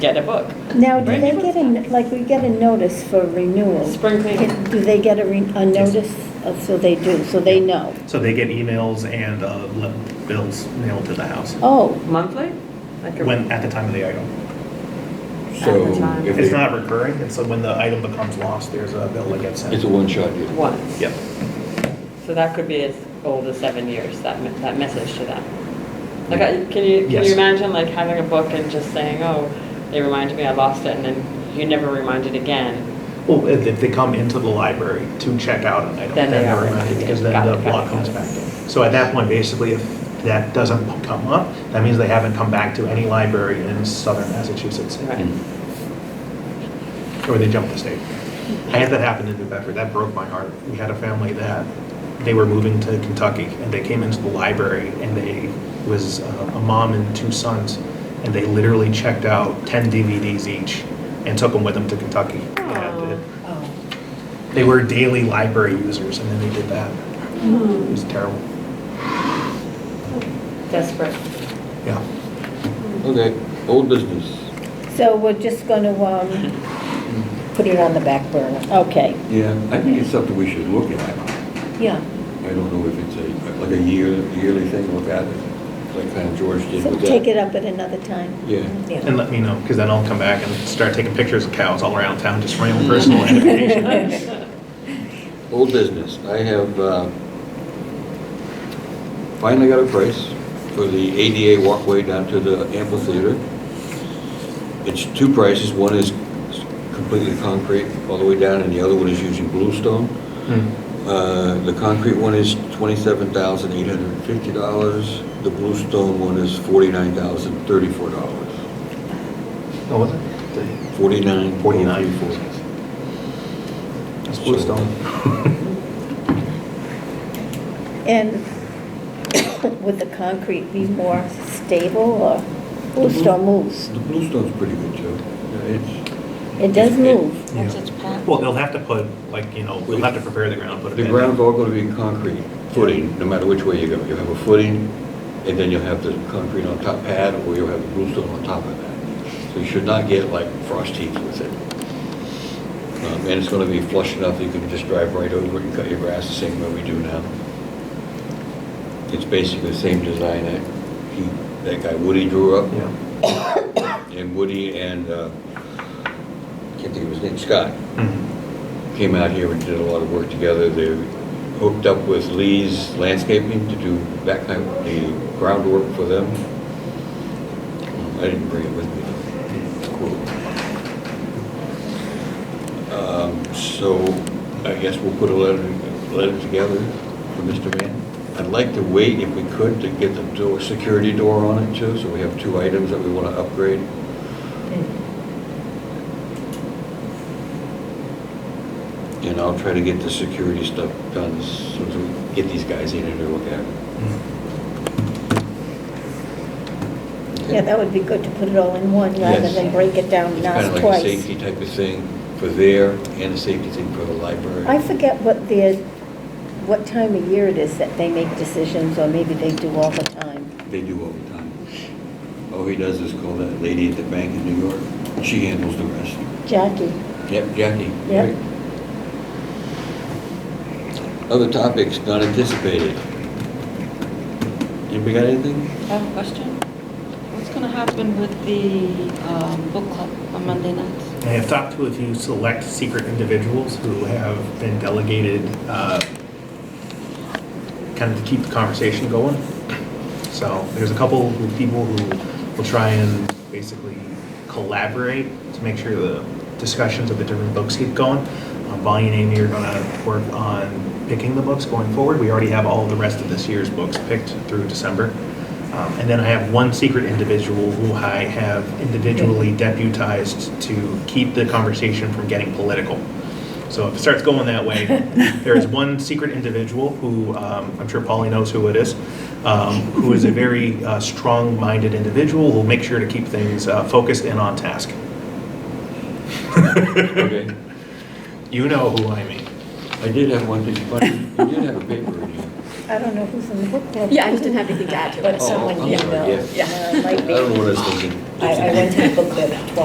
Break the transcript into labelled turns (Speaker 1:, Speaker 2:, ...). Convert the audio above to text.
Speaker 1: get a book.
Speaker 2: Now, do they get a, like, we get a notice for renewal?
Speaker 1: Spring cleaning.
Speaker 2: Do they get a, re- a notice? Oh, So they do, so they know.
Speaker 3: So they get emails and uh, le- bills mailed to the house
Speaker 2: Oh,
Speaker 1: Monthly? Like a-
Speaker 3: when, at the time of the item.
Speaker 4: So
Speaker 1: At the time.
Speaker 4: if
Speaker 3: It's
Speaker 4: they,
Speaker 3: not recurring, and so when the item becomes lost, there's a bill that gets
Speaker 4: it's a
Speaker 3: sent.
Speaker 4: one-shot deal.
Speaker 1: Once.
Speaker 3: Yep.
Speaker 1: So that could be as old as seven years, that, me- that message to them. Like, I- can you, can you
Speaker 3: Yes.
Speaker 1: imagine like having a book and just saying, oh, they reminded me I lost it, and then you never reminded again?
Speaker 3: Well, if if they come into the library to check out an item,
Speaker 1: Then
Speaker 3: then
Speaker 1: they
Speaker 3: they're
Speaker 1: are
Speaker 3: reminded,
Speaker 1: reminded.
Speaker 3: because then
Speaker 1: Got
Speaker 3: the
Speaker 1: it, got
Speaker 3: law
Speaker 1: it,
Speaker 3: comes
Speaker 1: got it.
Speaker 3: back in. So at that point, basically, if that doesn't come up, that means they haven't come back to any library in southern Massachusetts,
Speaker 1: Right.
Speaker 4: Mm.
Speaker 3: or they jumped the state. I had that happen in New Bedford, that broke my heart. We had a family that, they were moving to Kentucky, and they came into the library, and they, was uh, a mom and two sons, and they literally checked out 10 DVDs each and took them with them to Kentucky. And
Speaker 1: Aw.
Speaker 3: it- they were daily library users, and then they did that. It was terrible.
Speaker 1: Desperate.
Speaker 3: Yeah.
Speaker 4: Okay, old business.
Speaker 2: so we're just going to, um, put it on the back burner. Okay,
Speaker 4: Yeah, I think it's something we should look at.
Speaker 2: yeah.
Speaker 4: I don't know if it's a, like a year, yearly thing, look at it, like kind of George did
Speaker 2: So
Speaker 4: with that.
Speaker 2: take it up at another time.
Speaker 4: Yeah.
Speaker 3: And let me know, because then I'll come back and start taking pictures of cows all around town, just for my own personal edification.
Speaker 4: Old business, I have uh, finally got a price for the ADA walkway down to the amphitheater. It's two prices, one is completely concrete all the way down, and the other one is using bluestone.
Speaker 3: Hmm.
Speaker 4: Uh, The concrete one is $27,850, the bluestone one is
Speaker 3: What
Speaker 4: $49,034.
Speaker 3: Oh, was it? The-
Speaker 4: 49.
Speaker 3: 49. That's Bluestone.
Speaker 2: And would the concrete be more stable or, oh,
Speaker 4: Mm-hmm.
Speaker 2: still moves?
Speaker 4: The bluestone's pretty good, Joe. Yeah, it's-
Speaker 2: It does
Speaker 4: It-
Speaker 2: move.
Speaker 3: Yeah. Well, they'll have to put, like, you know, they'll have to prepare the ground, put it
Speaker 4: The
Speaker 3: in.
Speaker 4: ground's all going to be concrete footing, no matter which way you go. You'll have a footing, and then you'll have the concrete on top pad, or you'll have the bluestone on top of that. So you should not get like frost heaves with it. Um, And it's going to be flush enough that you can just drive right over it and cut your grass the same way we do now. It's basically the same design that he, that guy Woody drew up.
Speaker 3: Yeah.
Speaker 4: And Woody and, uh, can't think of his name, Scott
Speaker 3: Mhm.
Speaker 4: came out here and did a lot of work together. They hooked up with Lee's Landscaping to do that kind of, the groundwork for them. I didn't bring it with me. though. Cool. Um, So I guess we'll put a letter, letter together for Mr. Mann. I'd like to wait, if we could, to get the door, security door on it too, so we have two items that we want to upgrade. And I'll try to get the security stuff done as soon as we get these guys in and to look at it.
Speaker 2: Yeah, that would be good to put it all in one rather
Speaker 4: Yes.
Speaker 2: than break it down
Speaker 4: It's
Speaker 2: twice.
Speaker 4: kind of like a safety type of thing for there and a safety thing for the library.
Speaker 2: I forget what the, what time of year it is that they make decisions, or maybe they do all the time.
Speaker 4: They do all the time. All he does is call that lady at the bank in New York. She handles the rest.
Speaker 2: Jackie,
Speaker 4: Yep, Jackie.
Speaker 2: Yep.
Speaker 4: Other topics not anticipated. Anybody got anything?
Speaker 5: I have a question. What's going to happen with the um, book club on Monday nights?
Speaker 3: I have talked to a few select secret individuals who have been delegated, uh, kind of to keep the conversation going. So there's a couple of people who will try and basically collaborate to make sure the discussions of the different books keep going. Uh, Bonnie and Amy are going to work on picking the books going forward. We already have all the rest of this year's books picked through December. Um, And then I have one secret individual who I have individually deputized to keep the conversation from getting political. So if it starts going that way, there is one secret individual who, um, I'm sure Polly knows who it is, um, who is a very uh, strong-minded individual, who'll make sure to keep things uh, focused and on task.
Speaker 4: Okay.
Speaker 3: You know who I mean.
Speaker 4: I did have one thing funny. You did have a paper in here.
Speaker 2: I don't know who's in the book club.
Speaker 6: Yeah, I just didn't have anything to add to it.
Speaker 2: But
Speaker 4: Oh,
Speaker 2: someone
Speaker 4: I'm
Speaker 2: you
Speaker 4: sorry,
Speaker 2: know.
Speaker 4: yeah.
Speaker 2: uh, might
Speaker 4: I
Speaker 2: be.
Speaker 4: don't know what I was thinking.
Speaker 2: I I went to the book club twice.